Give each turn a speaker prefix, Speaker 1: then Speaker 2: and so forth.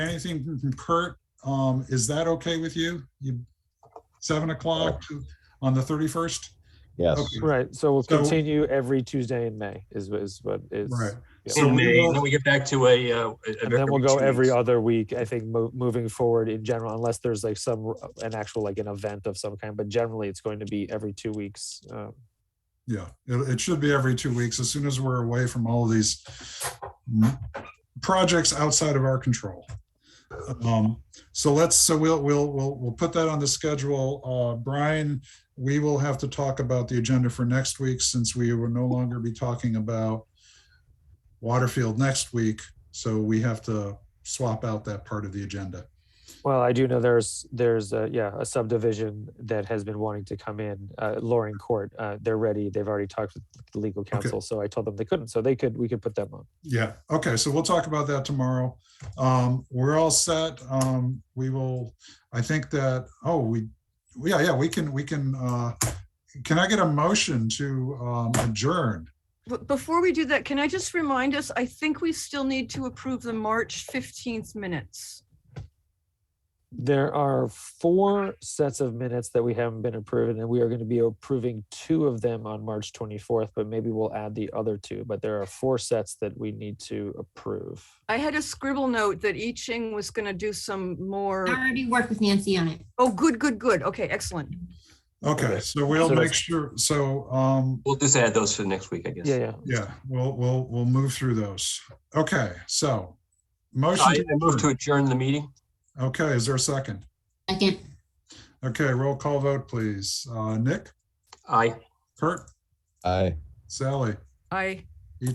Speaker 1: anything from- from Kurt, um, is that okay with you? You, seven o'clock on the thirty-first?
Speaker 2: Yes,
Speaker 1: Okay.
Speaker 3: Right, so we'll
Speaker 1: So-
Speaker 3: continue every Tuesday in May is, is what is.
Speaker 1: Right.
Speaker 3: yeah.
Speaker 1: So
Speaker 4: in
Speaker 1: we
Speaker 4: May,
Speaker 1: will-
Speaker 4: then we get back to a, uh.
Speaker 3: And then we'll go every other week, I think, mo- moving forward in general, unless there's like some, an actual, like an event of some kind, but generally it's going to be every two weeks. um,
Speaker 1: Yeah, it, it should be every two weeks, as soon as we're away from all of these mm, projects outside of our control. Um, so let's, so we'll, we'll, we'll, we'll put that on the schedule. Uh, Brian, we will have to talk about the agenda for next week since we will no longer be talking about Waterfield next week. So we have to swap out that part of the agenda.
Speaker 3: Well, I do know there's, there's, uh, yeah, a subdivision that has been wanting to come in, uh, Loring Court. Uh, they're ready. They've already talked with the legal counsel, so I told them they couldn't, so they could, we could put them on.
Speaker 1: Yeah, okay, so we'll talk about that tomorrow. Um, we're all set. Um, we will, I think that, oh, we, yeah, yeah, we can, we can, uh, can I get a motion to, um, adjourn?
Speaker 5: B- Before we do that, can I just remind us, I think we still need to approve the March 15th minutes.
Speaker 3: There are four sets of minutes that we haven't been approving, and we are going to be approving two of them on March 24th, but maybe we'll add the other two. But there are four sets that we need to approve.
Speaker 5: I had a scribble note that I Ching was going to do some more.
Speaker 6: I already worked with Nancy on it.
Speaker 5: Oh, good, good, good. Okay, excellent.
Speaker 1: Okay,
Speaker 3: Okay.
Speaker 1: so we'll
Speaker 3: So
Speaker 1: make
Speaker 3: that's-
Speaker 1: sure, so, um,
Speaker 4: We'll just add those for next week, I guess.
Speaker 3: Yeah, yeah.
Speaker 1: yeah, we'll, we'll, we'll move through those. Okay, so. Motion,
Speaker 4: I
Speaker 1: to
Speaker 4: I move to
Speaker 1: adjourn.
Speaker 4: adjourn the meeting.
Speaker 1: okay, is there a second?
Speaker 6: Second,
Speaker 1: Okay, roll call vote, please. Uh, Nick,
Speaker 4: Aye.
Speaker 1: Kurt,
Speaker 2: aye.
Speaker 1: Sally,
Speaker 5: I,